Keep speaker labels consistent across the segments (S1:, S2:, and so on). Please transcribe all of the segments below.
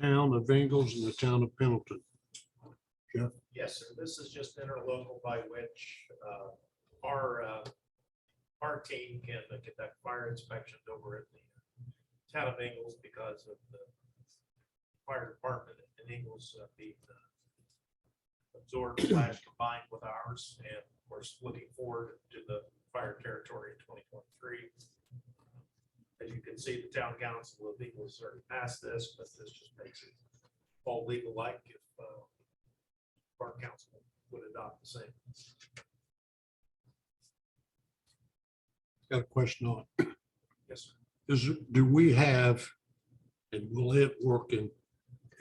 S1: town of Ingalls and the town of Pendleton.
S2: Yes, sir. This is just interlocal by which uh, our, uh, our team can conduct fire inspections over at the uh, town of Ingles because of the fire department in Ingles uh, being uh, absorbed slash combined with ours. And of course, looking forward to the fire territory in 2023. As you can see, the town council of Ingles already passed this, but this just makes it all legal like if uh, our council would adopt the same.
S1: Got a question on,
S2: Yes, sir.
S1: it. is, do we have, and will it work in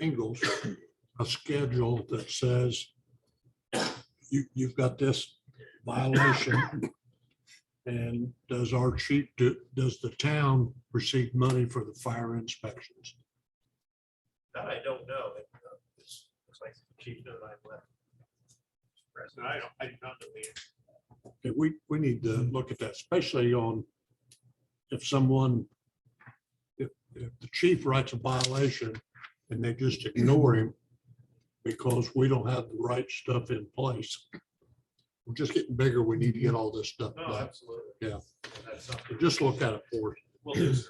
S1: Ingalls, a schedule that says you, you've got this violation? And does our chief, do- does the town receive money for the fire inspections?
S2: That I don't know. It, uh, it's- Looks like the chief knows I left. President, I don't, I do not know the answer.
S1: Okay, we, we need to look at that, especially on if someone, if, if the chief writes a violation and they just ignore him because we don't have the right stuff in place. We're just getting bigger. We need to get all this stuff.
S2: No,
S1: done.
S2: absolutely.
S1: Yeah.
S2: And That's something.
S1: Just look at it for us.
S2: Will do, sir.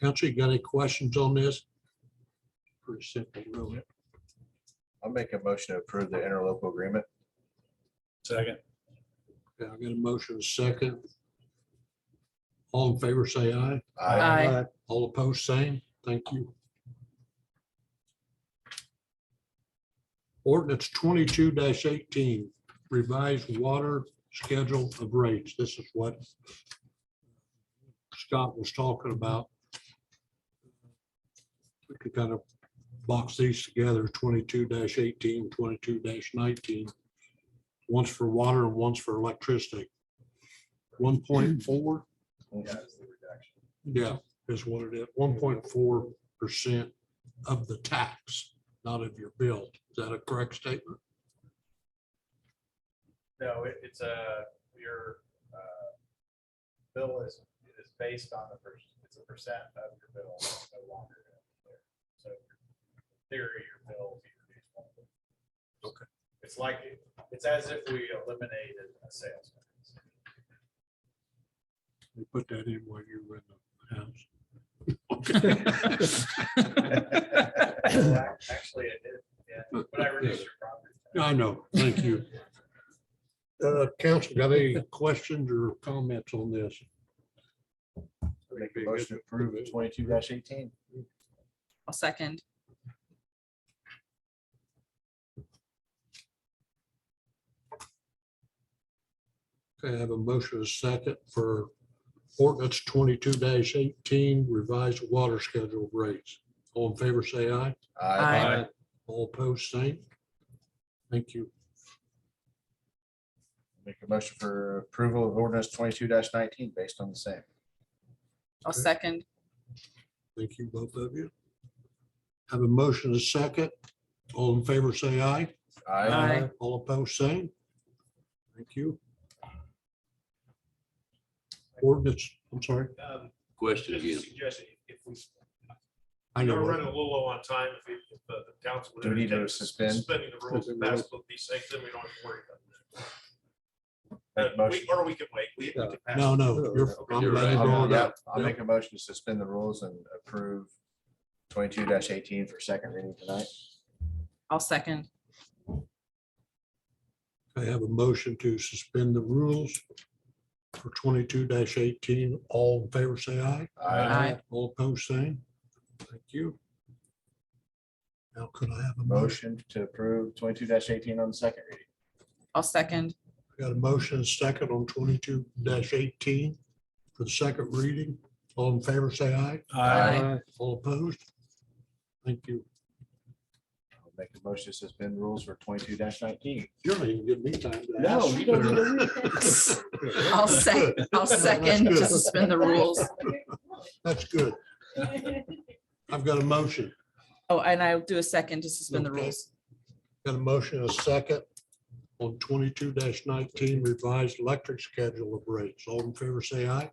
S1: Council, you got any questions on this? Pretty simple, really.
S3: I'll make a motion to approve the interlocal agreement.
S4: Second.
S1: Yeah, I got a motion and a second. All in favor, say aye.
S3: I
S5: Aye.
S1: All opposed, same. Thank you. Ordinance twenty-two eighteen, revised water schedule of rates. This is what Scott was talking about. We could kind of box these together, 22 18 22 nineteen. One's for water and one's for electricity. One point four, yeah, is what it is, one point four percent of the tax, not of your bill. Is that a correct statement?
S6: No, it, it's a, your, uh, bill is, is based on the, per- it's a percent of your bill, it's no longer. there. So your theory, your bill. is your responsibility.
S1: Okay.
S6: It's like, it's as if we eliminated a sales. tax.
S1: They put that in while you were in the house.
S6: Well, ac- Actually, I did, yeah, but I reduced your property. tax.
S1: I know, thank you. Uh, council, got any questions or comments on this?
S3: Make a motion to approve the twenty-two eighteen.
S5: I'll second.
S1: Okay, I have a motion and a second for ordinance twenty-two eighteen, revised water schedule rates. All in favor, say aye.
S5: Aye.
S1: All opposed, same. Thank you.
S3: Make a motion for approval of ordinance twenty-two nineteen based on the same.
S5: I'll second.
S1: Thank you, both of you. Have a motion and a second. All in favor, say aye.
S5: Aye.
S1: All opposed, same. Thank you. Ordinance, I'm sorry,
S2: Um,
S7: Question
S2: Just a
S7: again.
S2: suggestion, if we,
S1: I
S2: we're
S1: know.
S2: running a little low on time, if we- if uh, the council. would
S3: Do we need to
S2: entertain
S3: suspend?
S2: Suspending the rules and pass both these things, then we don't have to worry
S3: Make
S2: about
S3: a
S2: that. Uh, we-
S3: motion.
S2: Or we can wait. We- we
S1: Yeah.
S2: can pass
S1: No,
S2: it.
S1: no, you're. I'm
S7: You're
S1: glad you
S7: right.
S1: brought it
S3: Yeah,
S1: up.
S3: I'll make a motion to suspend the rules and approve twenty-two eighteen for second reading tonight.
S5: I'll second.
S1: I have a motion to suspend the rules for twenty-two eighteen. All in favor, say aye.
S5: Aye.
S1: All opposed, same. Thank you. Now could I have a motion?
S3: Motion to approve twenty-two eighteen on the second reading.
S5: I'll second.
S1: Got a motion and a second on twenty-two eighteen for the second reading. All in favor, say aye.
S5: Aye.
S1: All opposed? Thank you.
S3: I'll Make a motion to suspend rules for twenty-two nineteen.
S1: You're not even giving me time. to
S3: No,
S1: ask.
S3: you don't need
S5: I'll sec, I'll second to suspend the rules.
S1: That's good. I've got a motion,
S5: Oh, and I'll do a second to suspend the
S1: Okay.
S5: rules.
S1: got a motion, and a second on twenty-two nineteen revised electric schedule of rates. All in favor, say aye.